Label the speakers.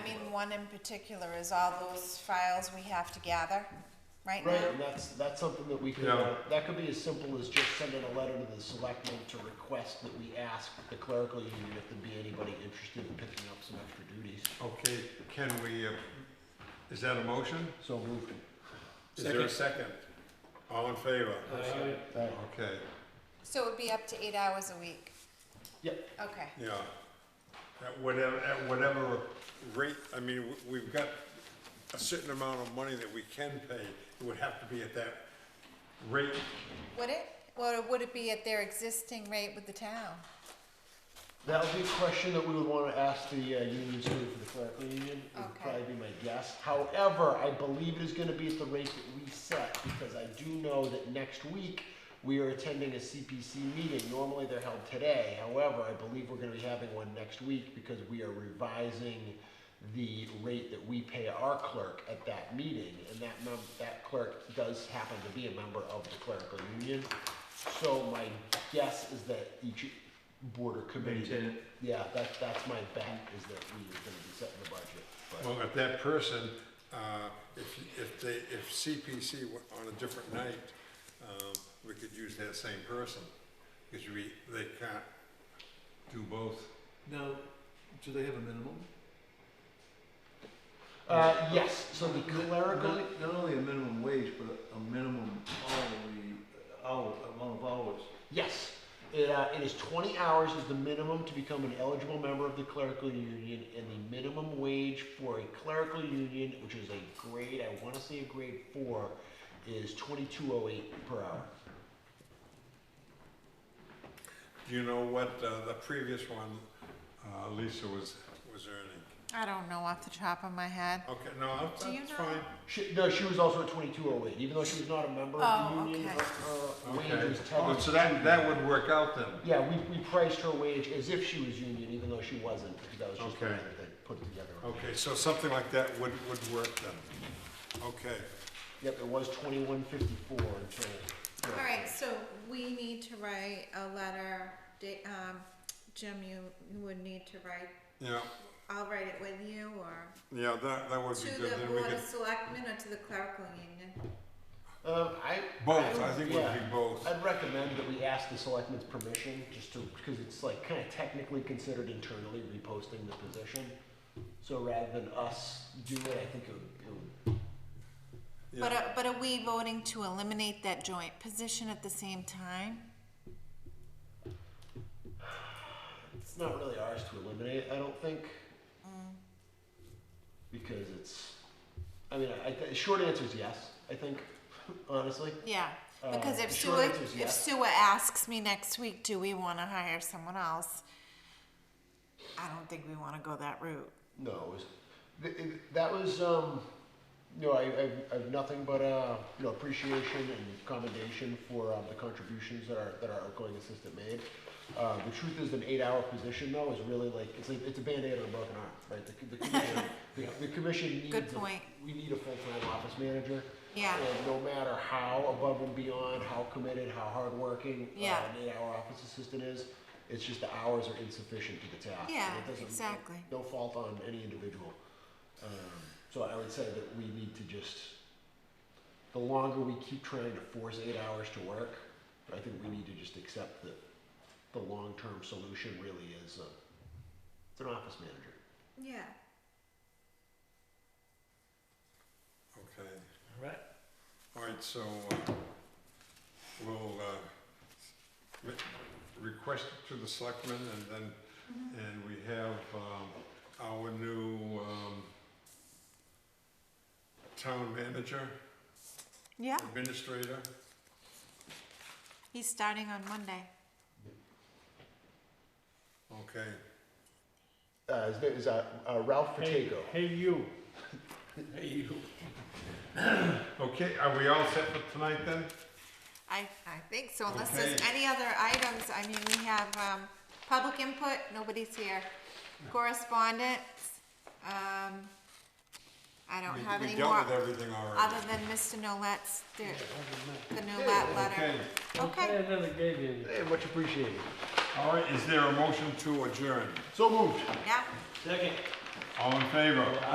Speaker 1: one in particular is all those files we have to gather right now.
Speaker 2: Right, and that's, that's something that we could,
Speaker 3: Yeah.
Speaker 2: that could be as simple as just sending a letter to the selectmen to request that we ask the clerical union if there'd be anybody interested in picking up some extra duties.
Speaker 3: Okay, can we, uh, is that a motion?
Speaker 2: So moved.
Speaker 3: Is there a second? All in favor?
Speaker 2: Aye.
Speaker 3: Okay,
Speaker 1: So it would be up to eight hours a week.
Speaker 2: Yep,
Speaker 1: Okay.
Speaker 3: yeah. At whatever, at whatever rate, I mean, w- we've got a certain amount of money that we can pay. It would have to be at that rate.
Speaker 1: Would it? Well, would it be at their existing rate with the town?
Speaker 2: that would be a question that we would wanna ask the, uh, union school for the clerical union, It would
Speaker 1: Okay.
Speaker 2: probably be my guess. However, I believe it is gonna be at the rate that we set, because I do know that next week, we are attending a CPC meeting, normally they're held today, however, I believe we're gonna be having one next week, because we are revising the rate that we pay our clerk at that meeting, and that mem- that clerk does happen to be a member of the clerical union. So my guess is that each board or committee.
Speaker 4: Maintain it.
Speaker 2: Yeah, that, that's my bet, is that we are gonna be setting the budget, but,
Speaker 3: Well, if that person, uh, if, if they, if CPC went on a different night, um, we could use that same person. Because we, they can't do both.
Speaker 4: Now, do they have a minimum?
Speaker 2: uh, yes, so the clerical,
Speaker 4: Not, not only a minimum wage, but a minimum hourly, hour, amount of hours.
Speaker 2: yes. It, uh, it is twenty hours is the minimum to become an eligible member of the clerical union, and the minimum wage for a clerical union, which is a grade, I wanna say a grade four, is twenty-two oh eight per hour.
Speaker 3: Do you know what, uh, the previous one, uh, Lisa was, was earning?
Speaker 1: I don't know off the top of my head.
Speaker 3: Okay, no, that's
Speaker 1: Do you
Speaker 3: that's
Speaker 1: know?
Speaker 3: fine.
Speaker 2: She, no, she was also at twenty-two oh eight, even though she was not a member of
Speaker 1: Oh,
Speaker 2: the union,
Speaker 1: okay.
Speaker 2: her, her wage
Speaker 3: Okay,
Speaker 2: was ten.
Speaker 3: Oh, so that, that would work out then?
Speaker 2: Yeah, we, we priced her wage as if she was union, even though she wasn't, because that was just the way
Speaker 3: Okay.
Speaker 2: that they put it together.
Speaker 3: Okay, so something like that would, would work then. Okay,
Speaker 2: Yep, it was twenty-one fifty-four until.
Speaker 1: All right, so we need to write a letter. Da- Um, Jim, you you would need to write,
Speaker 3: yeah,
Speaker 1: I'll write it with you or
Speaker 3: yeah, that, that would be
Speaker 1: to
Speaker 3: good.
Speaker 1: the
Speaker 3: Then we
Speaker 1: Board
Speaker 3: could,
Speaker 1: of Selectmen or to the clerical union.
Speaker 2: Um, I.
Speaker 3: both, I think it would
Speaker 2: yeah.
Speaker 3: be both.
Speaker 2: I'd recommend that we ask the selectmen's permission, just to, because it's like kind of technically considered internally reposting the position. So rather than us do it, I think it would, it would
Speaker 3: Yeah.
Speaker 1: But are, but are we voting to eliminate that joint position at the same time?
Speaker 2: It's not really ours to eliminate, I don't think.
Speaker 1: Mm.
Speaker 2: Because it's, I mean, I, the short answer is yes, I think, honestly.
Speaker 1: Yeah, because
Speaker 2: Uh,
Speaker 1: if
Speaker 2: the
Speaker 1: Sue,
Speaker 2: short answer is
Speaker 1: if
Speaker 2: yes.
Speaker 1: Sue asks me next week, do we wanna hire someone else? I don't think we wanna go that route.
Speaker 2: No, it was, th- it- that was, um, no, I, I've, I've nothing but, uh, you know, appreciation and commendation for, um, the contributions that our, that our outgoing assistant made. Uh, the truth is, an eight-hour position though is really like, it's like, it's a Band-Aid on a broken arm, right? The, the commission, the, the commission needs.
Speaker 1: Good
Speaker 2: a-
Speaker 1: point.
Speaker 2: We need a full-time office manager.
Speaker 1: Yeah.
Speaker 2: And no matter how above and beyond, how committed, how hardworking uh,
Speaker 1: Yeah.
Speaker 2: an eight-hour office assistant is, it's just the hours are insufficient to the task. and
Speaker 1: Yeah,
Speaker 2: it doesn't-
Speaker 1: exactly.
Speaker 2: No fault on any individual. Um, so I would say that we need to just, the longer we keep trying to force eight hours to work, I think we need to just accept that the long-term solution really is, uh, it's an office manager.
Speaker 1: Yeah.
Speaker 3: Okay,
Speaker 4: All right.
Speaker 3: all right, so, uh, we'll, uh, re- request it to the selectmen and
Speaker 1: Mm-hmm.
Speaker 3: then, and we have, um, our new, um, town manager,
Speaker 1: Yeah,
Speaker 3: administrator,
Speaker 1: he's starting on Monday.
Speaker 3: okay.
Speaker 2: Uh, his name is, uh, uh, Ralph Fatego.
Speaker 5: Hey, you. Hey, you.
Speaker 3: Okay, are we all set for tonight then?
Speaker 1: I, I think so, unless there's
Speaker 3: Okay.
Speaker 1: any other items, I mean, we have, um, public input, nobody's here. Correspondence, um, I don't
Speaker 3: We-
Speaker 1: have any
Speaker 3: We
Speaker 1: more,
Speaker 3: dealt with everything already.
Speaker 1: other than Mr. Nolet's, the, the Nolet letter.
Speaker 3: Okay,
Speaker 1: Okay.
Speaker 5: I never gave you any.
Speaker 2: Hey, much appreciated.
Speaker 3: all right, is there a motion to adjourn?
Speaker 2: So moved.
Speaker 1: Yeah.
Speaker 5: Second.
Speaker 3: All in favor?